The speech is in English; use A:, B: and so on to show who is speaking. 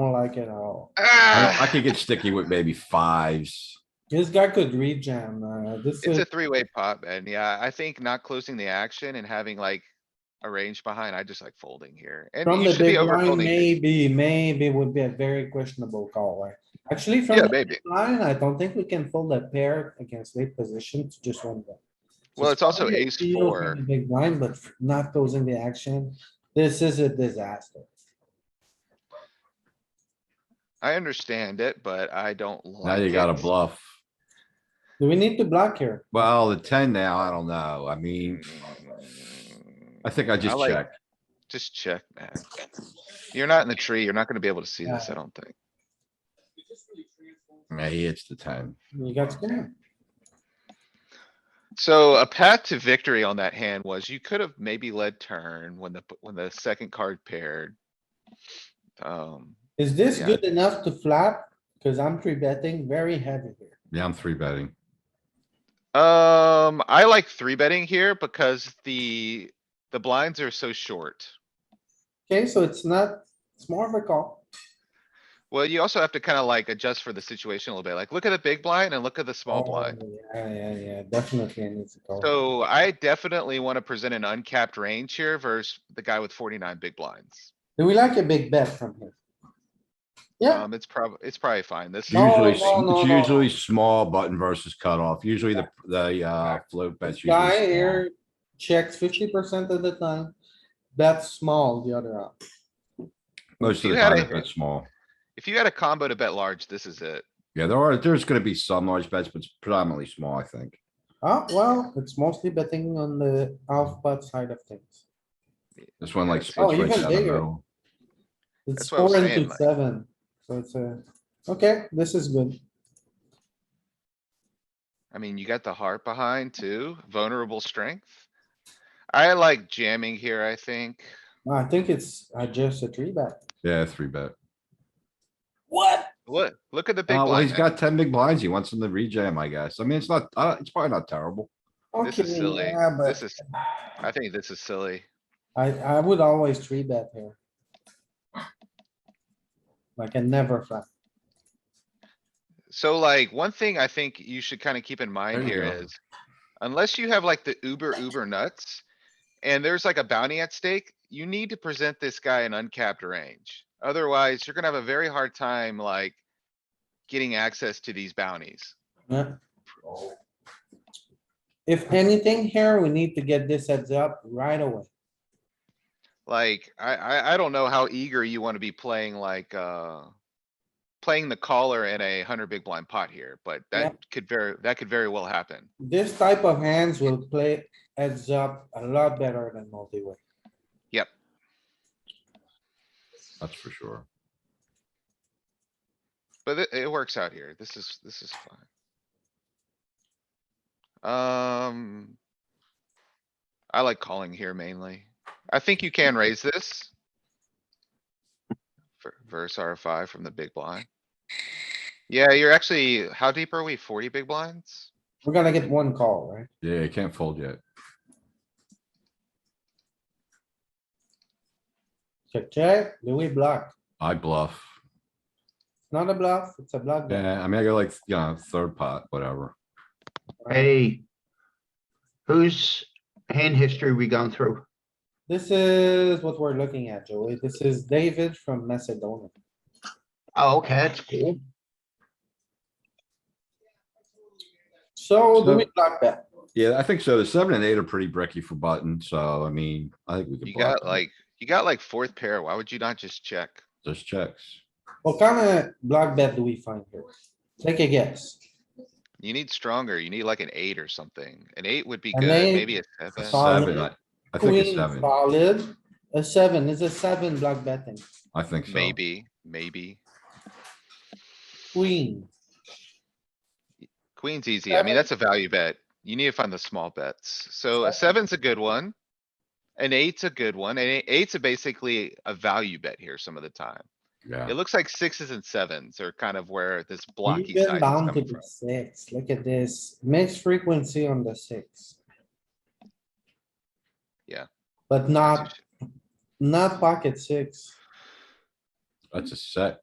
A: don't like it at all.
B: I
C: Ah,
B: don't- I could get sticky with maybe fives.
A: This guy could rejam, uh, this is,
C: It's a three-way pot, man. Yeah, I think not closing the action and having like a range behind, I just like folding here. And
A: from
C: you
A: the
C: should be
A: big
C: over
A: line,
C: folding. here.
A: maybe, maybe would be a very questionable call, right? Actually, from
C: Yeah,
A: the
C: maybe.
A: line, I don't think we can fold a pair against late position to just one bet. So
C: Well, it's also
A: probably a
C: ace
A: steal from
C: four.
A: the Big blind, but not closing the action. This is a disaster.
C: I understand it, but I don't like.
B: Now you got a
C: it.
B: bluff.
A: Do we need to block here?
B: Well, the ten now, I don't know. I mean, I think I just
C: like-
B: check.
C: Just check, man. You're not in the tree. You're not gonna be able to see this, I don't think.
B: Yeah, he hits the ten.
A: You got scared.
C: So a path to victory on that hand was you could have maybe led turn when the, when the second card paired. Um,
A: Is this
C: Yeah.
A: good enough to flap? Cause I'm three betting very heavy here.
B: Yeah, I'm three betting.
C: um, I like three betting here because the, the blinds are so short.
A: Okay, so it's not, it's more of a call.
C: Well, you also have to kinda like adjust for the situation a little bit. Like, look at the big blind and look at the small
A: Oh,
C: blind.
A: Yeah, yeah, yeah, definitely I need to call.
C: So I definitely wanna present an uncapped range here versus the guy with forty-nine big blinds.
A: Do we like a big bet from here? Yeah,
C: Um, it's prob, it's probably fine. This.
A: No,
B: Usually, s-
A: no, no,
B: it's
A: no.
B: usually small button versus cutoff. Usually the, the, uh, float bets. usually
A: guy
B: small.
A: here checks fifty percent of the time. That's small the other out.
B: Most of
C: You
B: the
C: had
B: time,
C: a-
B: it's bet small.
C: If you had a combo to bet large, this is it.
B: Yeah, there are, there's gonna be some large bets, but it's predominantly small, I think.
A: Oh, well, it's mostly betting on the off pot side of things.
B: This one like
C: Oh,
B: splits right
A: even
B: down the
A: bigger.
B: middle.
A: It's
C: That's what I was
A: four
C: saying,
A: into
C: like-
A: seven, so it's a, okay, this is good.
C: I mean, you got the heart behind too, vulnerable strength. I like jamming here, I think.
A: I think it's, I just a three bet.
B: Yeah, three bet.
A: What?
C: Look, look at the big
B: Uh, well,
C: blind.
B: he's
C: man.
B: got ten big blinds. He wants him to rejam, I guess. I mean, it's not, uh, it's probably not terrible.
C: This is silly.
A: Okay, yeah,
C: This
A: but
C: is, I think this is silly.
A: I, I would always three bet here. Like I never flat.
C: So like, one thing I think you should kinda keep in mind
B: There you
C: here
B: go.
C: is, unless you have like the uber, uber nuts, and there's like a bounty at stake, you need to present this guy an uncapped range. Otherwise, you're gonna have a very hard time like getting access to these bounties.
A: Yeah. If anything here, we need to get this heads up right away.
C: Like, I, I, I don't know how eager you wanna be playing like, uh. Playing the caller in a hundred big blind pot here, but
A: Yeah.
C: that could very, that could very well happen.
A: This type of hands will play heads up a lot better than multi-way.
B: That's for sure.
C: But it, it works out here. This is, this is fine. Um. I like calling here mainly. I think you can raise this. ver- Verse R five from the big blind. Yeah, you're actually, how deep are we? Forty big blinds?
A: We're gonna get one call, right?
B: Yeah, he can't fold yet.
A: Check, check, do we block?
B: I bluff.
A: It's Not a bluff, it's a block. bet.
B: Yeah, I mean, I got like, you know, third pot, whatever.
D: Hey. Whose hand history we gone through?
A: This is what we're looking at, Joey. This is David from Macedonia.
D: Oh, okay, that's cool.
A: So do
B: So-
A: we block that?
B: Yeah, I think so. The seven and eight are pretty bricky for button, so I mean, I think we could.
C: You
B: block
C: got
B: them.
C: like, you got like fourth pair. Why would you not just check?
B: Just checks.
A: What kind of block bet do we find here? Take a guess.
C: You need stronger. You need like an eight or something. An eight would be
A: An
C: good,
A: eight,
C: maybe a
B: A
C: seven.
A: five.
B: seven, I
A: Solid.
B: I think a
A: Queen
B: seven.
A: Solid, a seven, is a seven block betting,
B: I think so.
C: Maybe, maybe.
A: queen.
C: Queen's easy. I mean, that's a value bet. You need to find the small bets. So a seven's a good one. An eight's a good one. And eight's a basically a value bet here some of the time.
B: Yeah,
C: It looks like sixes and sevens are kind of where this blocky side
A: Even
C: is
A: down to
C: coming
A: the
C: from.
A: six, look at this, mixed frequency on the six.
C: Yeah.
A: But not, not pocket six,
B: that's a set.